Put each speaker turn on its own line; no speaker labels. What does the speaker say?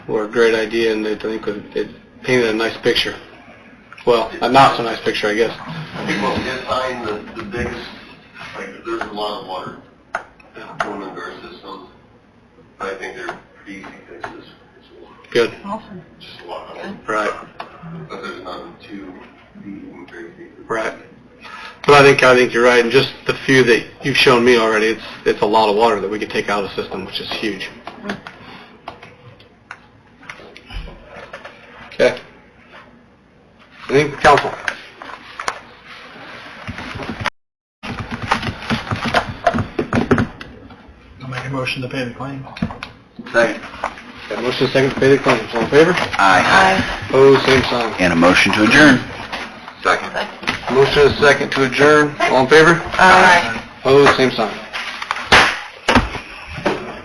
were a great idea, and they, I think it it painted a nice picture. Well, a not so nice picture, I guess.
I think what we did find, the, the biggest, like, there's a lot of water going into our system. But I think they're pretty easy fixes. It's a lot-
Good.
Awesome.
Just a lot of them.
Right.
But there's none too deep and crazy.
Right. But I think I think you're right, and just the few that you've shown me already, it's it's a lot of water that we could take out of the system, which is huge. Okay. Anything, from council?
I'll make a motion to pay the claim.
Second.
Got a motion second to pay the claims. All in favor?
Aye.
Opposed, same sign.
And a motion to adjourn.
Second.
Motion is second to adjourn. All in favor?
Aye.
Opposed, Oh, same sign.